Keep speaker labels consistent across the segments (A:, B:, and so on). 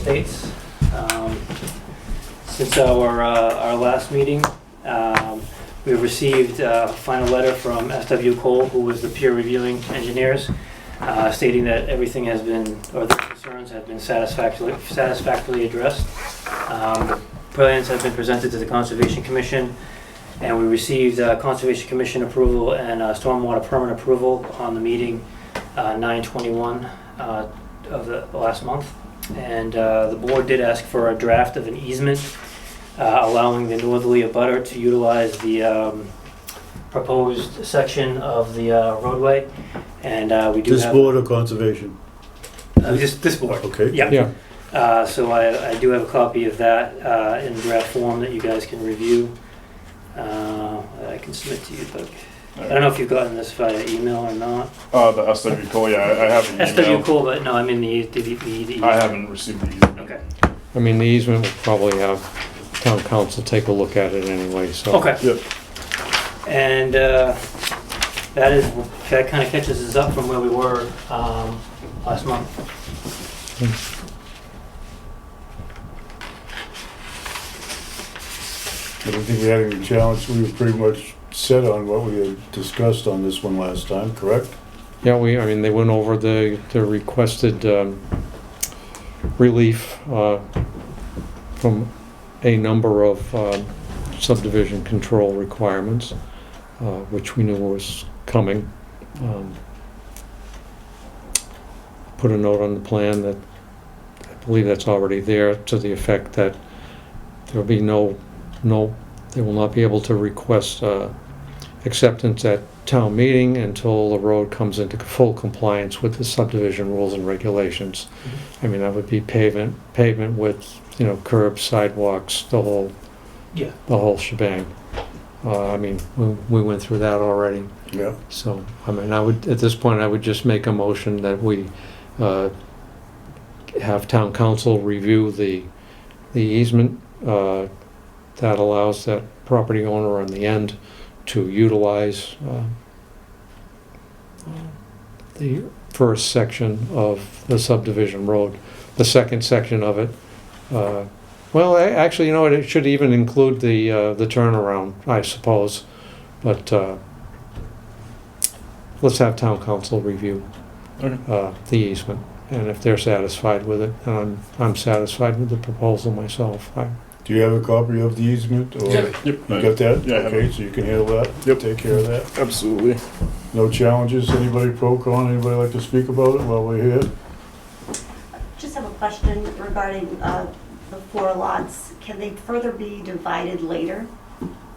A: updates. Um, Since our, uh, our last meeting, um, we received uh, a final letter from SW Cole, who was the peer reviewing engineers, uh, stating that everything has been, or the concerns have been satisfactorily, satisfactorily addressed. Um, the Plans have been presented to the Conservation Commission, and we received uh, Conservation Commission approval and uh, stormwater permit approval on the meeting uh, 9/21 uh, of the last month. And uh, the board did ask for a draft of an easement uh, allowing the northerly abutter to utilize the um, proposed section of the uh, roadway. And uh, we do
B: This
A: have...
B: board of conservation,
A: Uh, This this board,
B: okay?
A: yeah.
C: Yeah,
A: Uh, So I, I do have a copy of that uh, in draft form that you guys can review. Uh, that I can submit to you, Doug. I don't know if you've gotten this via email or not.
D: Uh, the SW Cole, yeah, I I have an
A: SW
D: email.
A: Cool, but no, I mean the, the, the- the.
D: I haven't received the email.
A: Okay,
C: I mean, the easement will probably have town council take a look at it anyway, so.
A: okay.
D: Yep.
A: And uh, that is, that kind of catches us up from where we were um, last month.
B: I don't think we had any challenge, we were pretty much set on what we had discussed on this one last time, correct?
C: Yeah, we, I mean, they went over the, the requested um, relief uh, from a number of um, subdivision control requirements, uh, which we knew was coming. Um, Put a note on the plan that, I believe that's already there, to the effect that there'll be no, no, they will not be able to request uh, acceptance at town meeting until the road comes into full compliance with the subdivision rules and regulations. I mean, that would be pavement, pavement with, you know, curbs, sidewalks, the whole,
A: Yeah.
C: the whole shebang. Uh, I mean, we, we went through that already,
B: Yeah.
C: so, I mean, I would, at this point, I would just make a motion that we, uh, have town council review the, the easement, uh, that allows that property owner on the end to utilize, uh, the first section of the subdivision road, the second section of it. uh, Well, a- actually, you know what, it should even include the, uh, the turnaround, I suppose, but, uh, let's have town council review
D: Okay.
C: uh, the easement, and if they're satisfied with it, and I'm, I'm satisfied with the proposal myself, I,
B: Do you have a copy of the easement, or you
D: Yep,
B: got that?
D: Yeah, I have it.
B: Okay, so you can handle that?
D: Yep.
B: Take care of that?
D: absolutely.
B: No challenges, anybody pro con, anybody like to speak about it while we're here?
E: Just have a question regarding uh, the four lots. Can they further be divided later?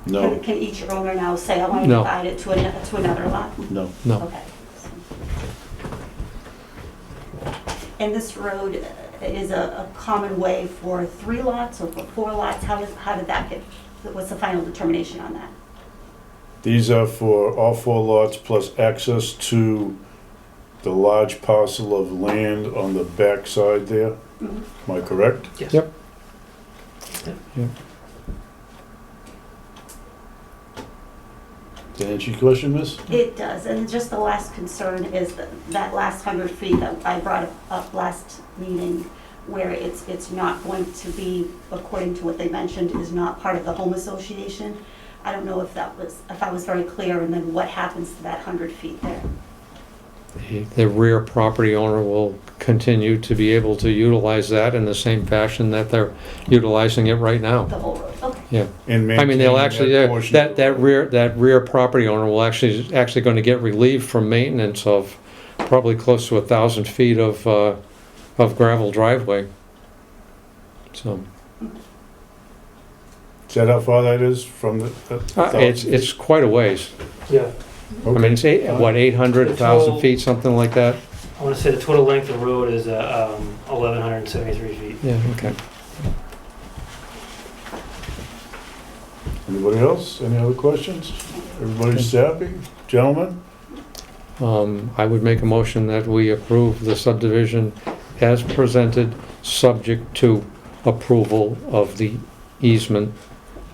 E: Can- Can each owner now say, I want to
C: No.
E: divide it to ano- to another lot?
B: no.
C: no,
E: Okay. And this road is a a common way for three lots or for four lots? How does, how did that get, what's the final determination on that?
B: These are for all four lots plus access to the large parcel of land on the backside there,
E: Mhm.
B: am I correct?
A: Yes.
C: Yep. Yep.
B: Did that answer your question, miss?
E: It does, and just the last concern is that, that last hundred feet that I brought up last meeting, where it's, it's not going to be, according to what they mentioned, is not part of the home association. I don't know if that was, if I was very clear, and then what happens to that hundred feet there?
C: The- the rear property owner will continue to be able to utilize that in the same fashion that they're utilizing it right now.
E: The whole road, okay,
C: Yeah,
B: And
C: I mean, they'll actually,
B: maintaining that
C: they're-
B: portion
C: that,
B: of the
C: that
B: road.
C: rear, that rear property owner will actually, actually gonna get relief from maintenance of probably close to a thousand feet of, uh, of gravel driveway. So,
B: Is that how far that is from the? the
C: uh, it's, it's quite a ways.
A: Yeah,
C: I mean, it's eight, what, eight hundred thousand feet, something like that?
A: I want to say the total length of road is uh, um, 1,173 feet.
C: Yeah, okay.
B: Anybody else? Any other questions? Everybody's happy? Gentlemen?
C: Um, I would make a motion that we approve the subdivision as presented, subject to approval of the easement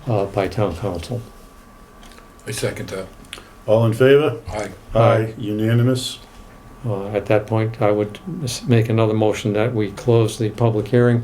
C: uh, by town council.
F: I second that.
B: All in favor?
F: Aye.
B: Aye. Unanimous?
C: Uh, At that point, I would s- make another motion that we close the public hearing